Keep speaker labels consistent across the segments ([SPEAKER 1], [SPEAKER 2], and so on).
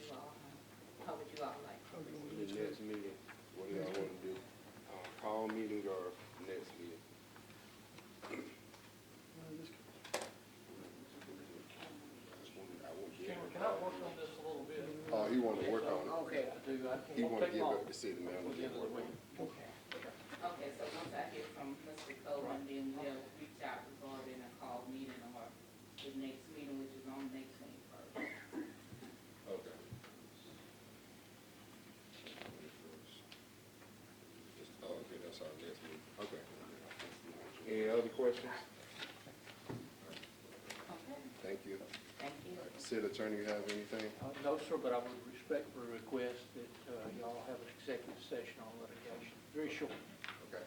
[SPEAKER 1] Uh, Oh, he wanted to work on
[SPEAKER 2] Okay,
[SPEAKER 1] it. He wanted to give up the city manager and work on it.
[SPEAKER 3] Okay, so once I hear from Mr. Coleman, then we'll reach out regarding a call meeting or the next meeting, which is on May twenty-first.
[SPEAKER 1] Okay. Oh, okay, that's our next meeting, okay. Any other questions?
[SPEAKER 3] Okay,
[SPEAKER 1] Thank you.
[SPEAKER 3] thank you.
[SPEAKER 1] City attorney, you have anything?
[SPEAKER 4] Uh, No, sir, but I would respectfully request that uh, y'all have an executive session on litigation, very short.
[SPEAKER 1] Okay,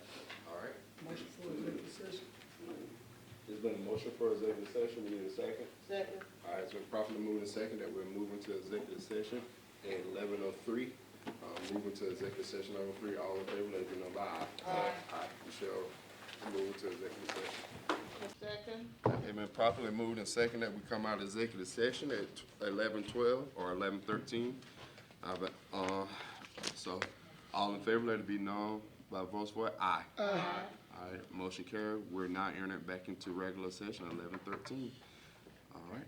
[SPEAKER 1] all right.
[SPEAKER 2] motion for executive session.
[SPEAKER 5] There's been a motion for executive session, we need a second.
[SPEAKER 2] Second.
[SPEAKER 1] All right, so properly moved and second that we're moving to executive session at eleven oh three. Um, moving to executive session number three, all in favor, let it be known by aye. Aye. Michelle, move to executive session.
[SPEAKER 2] Second.
[SPEAKER 1] It been properly moved and second that we come out of executive session at eleven twelve or eleven thirteen. I've, uh, so, all in favor, let it be known by votes for aye. Aye. All right, motion carried. We're now entering it back into regular session, eleven thirteen. All right.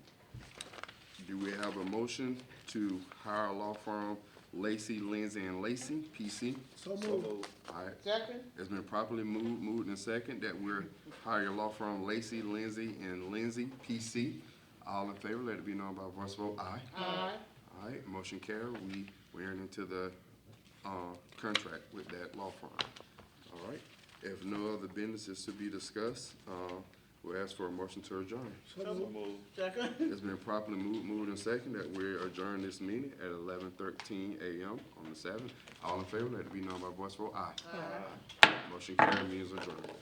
[SPEAKER 1] Do we have a motion to hire law firm Lacy, Lindsay and Lacy, PC?
[SPEAKER 2] So moved.
[SPEAKER 1] All right,
[SPEAKER 2] Second.
[SPEAKER 1] it's been properly moved, moved and second that we're hiring law firm Lacy, Lindsay, and Lindsay, PC. All in favor, let it be known by voice vote, aye.
[SPEAKER 2] Aye.
[SPEAKER 1] All right, motion carried, we, we entered into the, uh, contract with that law firm. All right, if no other business is to be discussed, uh, we'll ask for a motion to adjourn.
[SPEAKER 2] So moved. Second.
[SPEAKER 1] It's been properly moved, moved and second that we adjourn this meeting at eleven thirteen AM on the seventh. All in favor, let it be known by voice vote, aye. Motion carried, means adjourned.